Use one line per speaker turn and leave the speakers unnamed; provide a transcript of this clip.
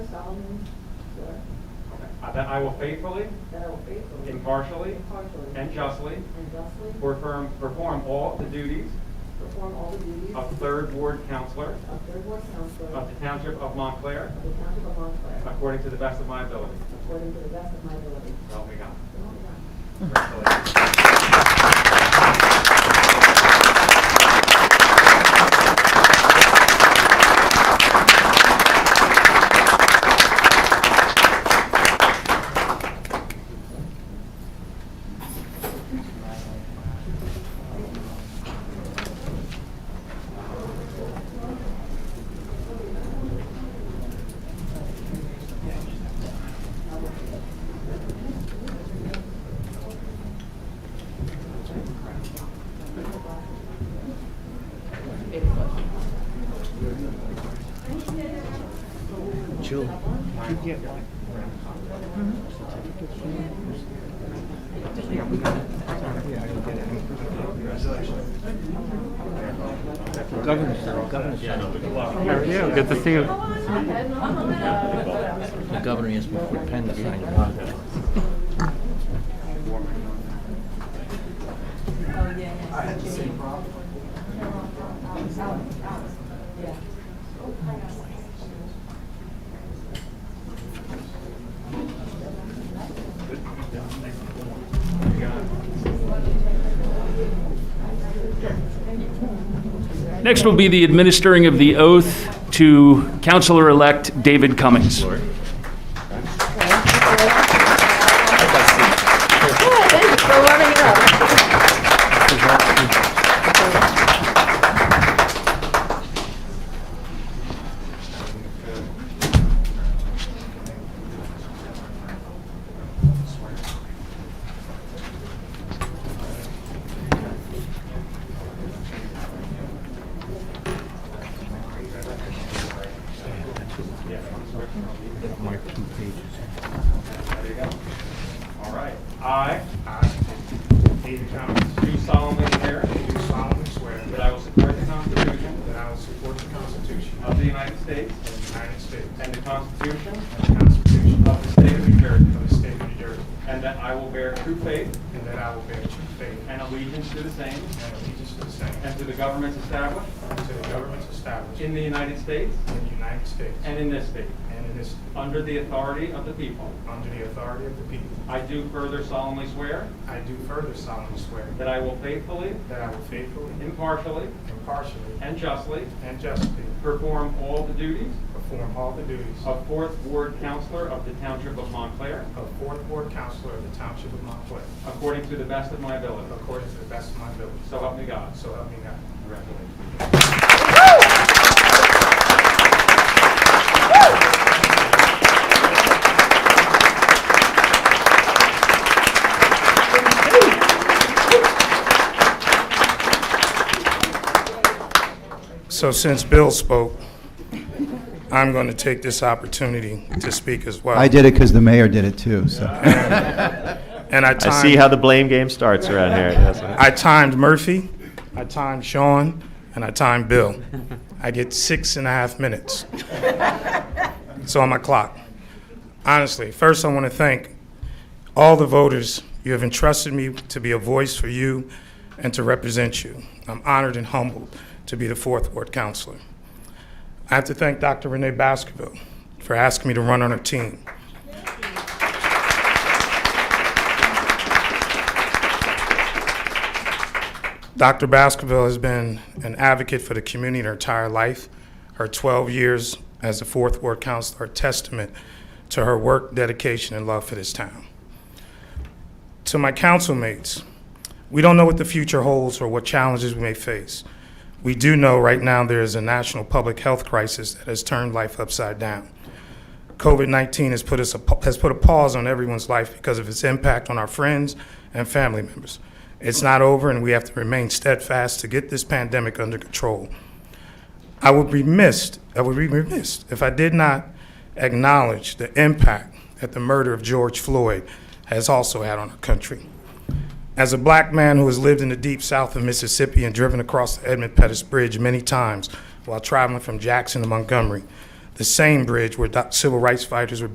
solemnly swear
uh, that I will faithfully,
that I will faithfully.
impartially,
Impartially.
and justly
And justly.
perform perform all the duties
Perform all the duties.
of Third Ward Counselor
Of third ward counselor.
of the Township of Montclair
Of the township of Montclair.
according to the best of my ability.
According to the best of my ability.
So help me God.
So help me God.
Congratulations.
Jill, you get like Yeah, I can get it. Governor, governor. How are you? Good to see you. The governor asked me for a pen to sign.
Next will be the administering of the oath to Counselor-elect David Cummings.
Thank you for warming it up.
Mark two pages.
There you go. All right. I. I. David Cummings. Do solemnly swear.
Do solemnly swear
That I will support the Constitution.
that I will support the Constitution
Of the United States.
of the United States
And the Constitution.
and the Constitution
Of the State of New Jersey.
of the State of New Jersey,
And that I will bear true faith.
and that I will bear true faith
And allegiance to the same.
and allegiance to the same
And to the governments established.
and to the governments established
In
in
the United States.
the United States
And in this state.
and in this,
Under the authority of the people.
under the authority of the people.
I do further solemnly swear.
I do further solemnly swear
That I will faithfully.
that I will faithfully,
Impartially.
impartially,
And justly.
and justly
Perform all the duties.
perform all the duties
of fourth ward counselor of the township of Montclair,
of Fourth Ward Counselor of the Township of Montclair,
according to the best of my ability.
according to the best of my ability.
So help me God.
So help me God.
Congratulations.
So since Bill spoke, I'm going to take this opportunity to speak as well.
I did it because the mayor did it too, so.
And I
I see how
timed,
the blame game starts around here. Yes.
I timed Murphy, I timed Sean, and I timed Bill. I get six and a half minutes. It's on my clock. Honestly, first I want to thank all the voters. You have entrusted me to be a voice for you and to represent you. I'm honored and humbled to be the fourth ward counselor. I have to thank Dr. Renee Baskerville for asking me to run on her team. Dr. Baskerville has been an advocate for the community her entire life. Her 12 years as the fourth ward counselor are testament to her work, dedication, and love for this town. To my councilmates, we don't know what the future holds or what challenges we may face. We do know right now there is a national public health crisis that has turned life upside down. COVID 19 has, put us a pa- has put a pause on everyone's life because of its impact on our friends and family members. It's not over, and we have to remain steadfast to get this pandemic under control. I would be missed, I would be remiss if I did not acknowledge the impact that the murder of George Floyd has also had on our country. As a black man who has lived in the deep south of Mississippi and driven across the Edmund Pettus Bridge many times while traveling from Jackson to Montgomery, the same bridge where doc- civil rights fighters were